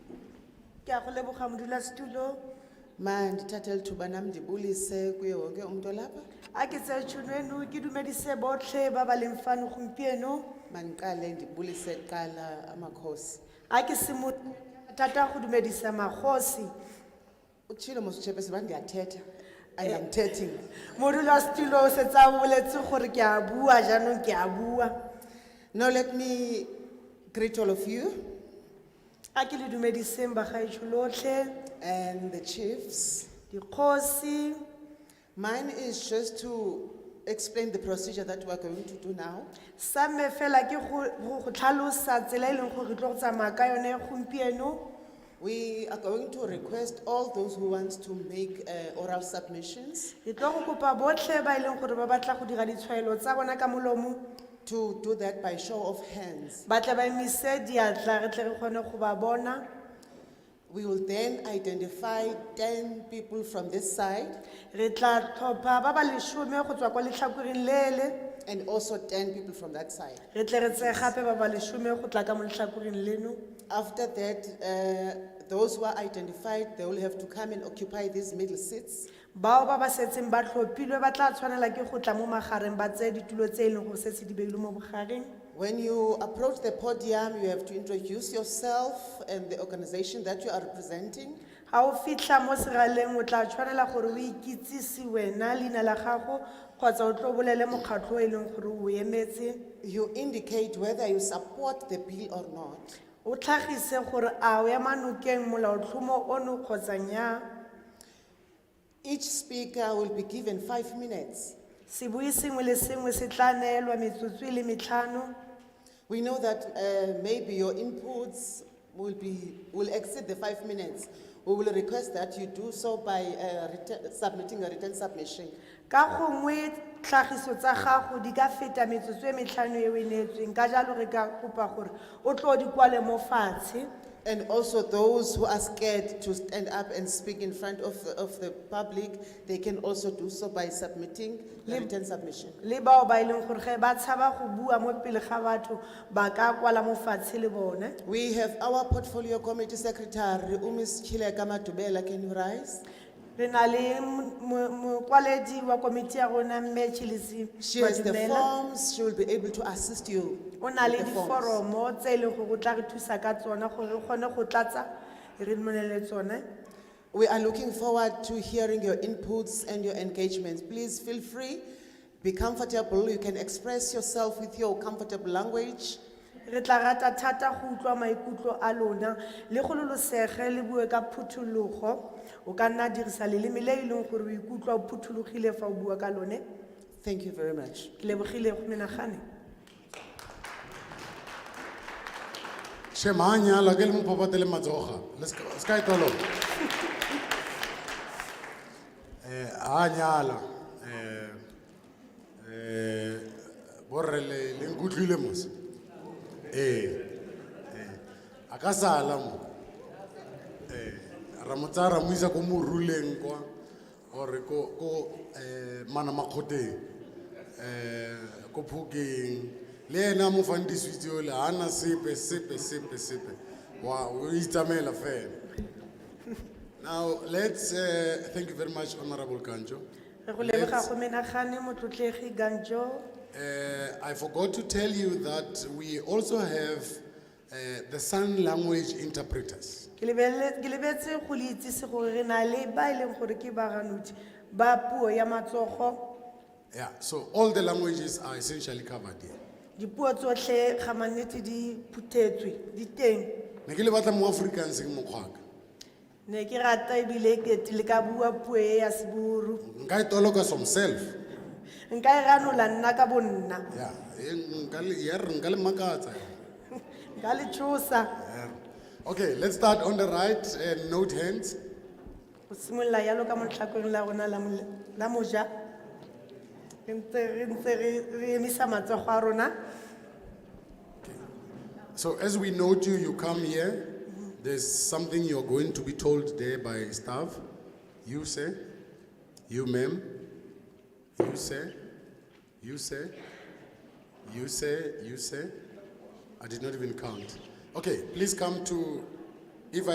ke a go leboga modulasetulo mandithathe lithuba nam ndibulise kuye wonke umntu olapha a ke tseye tšhono eno ke dumedise botlhe ba ba leng fano gompieno mandiqale ndibulise kuqala amakhosi a ke semo thata go dumedisa magosi utshilo mosutshepesi uba ndiyathetha andamthethi mna modulasetulo o setse a boletse gore ke a bua jaanong ke a bua now let me greet all of you a ke le dumediseng bagaetso lotlhe and the chiefs dikgosi mine is just to explain the procedure that we're going to do now sa me fela ke go go- go tlhalosa tsela e leng gore re tlo go tsamaya ka yone gompieno we are going to request all those who want to make uh, oral submissions re tlo go kopa botlhe ba e leng gore ba batla go dira ditshwaelo tsa bona ka molomo to do that by show of hands ba tle ba emise diatla re tle re kgone go ba bona we will then identify 10 people from this side re tla tlhopha ba ba lesome go tswa kwa letlhakoreng lele and also 10 people from that side. re tle re tseye gape ba ba lesome go tla ka mo letlhakoreng leno After that, uh, those who are identified, they will have to come and occupy these middle seats. bao ba ba setseng ba tlhophilwe ba tla tshwanela ke go tla mo magareng ba tseye ditulo tse e leng gore setse di beilwe mo bogareng When you approach the podium, you have to introduce yourself and the organization that you are representing. ga o fitlha mo seraleng o tla tshwanela gore o ikitsise wena leina la gago kgotsa o tlo bolele mokgatlho o e leng gore o emetse You indicate whether you support the bill or not. o tlhagise gore a o ema nokeng molaotlhomo ono kgotsa nnyaa Each speaker will be given five minutes. sebui sengwe le sengwe se tla neelwa metsotso e le metlhano We know that uh, maybe your inputs will be will exceed the five minutes. We will request that you do so by uh, written- submitting a written submission. ka gongwe tlhagiso tsa gago di ka feta metsotso e metlhano e o e neetsweng ka jalo re ka kopa gore o tlo di kwale mo fatshe And also those who are scared to stand up and speak in front of the, of the public, they can also do so by submitting a written submission. le bao ba e leng gore ge ba tshaba go bua mo pele ga batho ba ka kwala mo fatshe le bone We have our portfolio committee secretary, Umis Chileka Madubela, can you rise? re na le mo- mo- mokwaledi wa komiti ya rona mme chilese She has the forms, she will be able to assist you. o na le with the forms. diforomo tse e leng gore o tla re thusa ka tsona gore re kgone go tlatsa re monele tsone We are looking forward to hearing your inputs and your engagements. Please feel free, be comfortable. You can express yourself with your comfortable language. re tla rata thata go utlwa maikutlo a lona le gololosege le bue ka phuthologo o ka nna dirisa leleme le e leng gore o ikutlwa o phuthologile fa o bua ka lone Thank you very much. ke lebogile go menagane Shemanya, la ke le mopapate le matsoga. Let's go. Sky tolo. Eh, a nyala. Eh, eh, borre le le nkutlwile mos. Eh. Eh, a ka sala mo. Eh, ra mo tsaya ra mo isa ko moruleng kwa or ko ko eh mana makhoteng. Eh, ko phukeng. Le ena a mo fang diswitsi o le ana sepe sepe sepe sepe. Wa o itsamaela fela. Now let's uh, thank you very much honorable Kanjo. re go leboga go menagane motlotlegi ganjo Uh, I forgot to tell you that we also have uh, the sign language interpreters. ke lebelele- ke lebetse go le itsese gore re na le ba e leng gore ke baganodi ba puo ya matsogo Yeah, so all the languages are essentially covered here. dipuo tsotlhe ga mannete di phuthetswe di teng Ne ke le batla mo Afrikaans mo kgwaka. ne ke rata ebile ke le ka bua puo e ya seburu Nka e toloka somself. nka e ranola nna ka bonna Yeah, eh, nka le ya re nka le makatsa. nka le tshosa Yeah. Okay, let's start on the right and note hands. go simolola jalo ka motlhakong la rona la mole- la moja re ntse re ntse re- re emisa matsogo a rona So as we note you, you come here. There's something you're going to be told there by staff. You say, you ma'am, you say, you say, you say, you say. I did not even count. Okay, please come to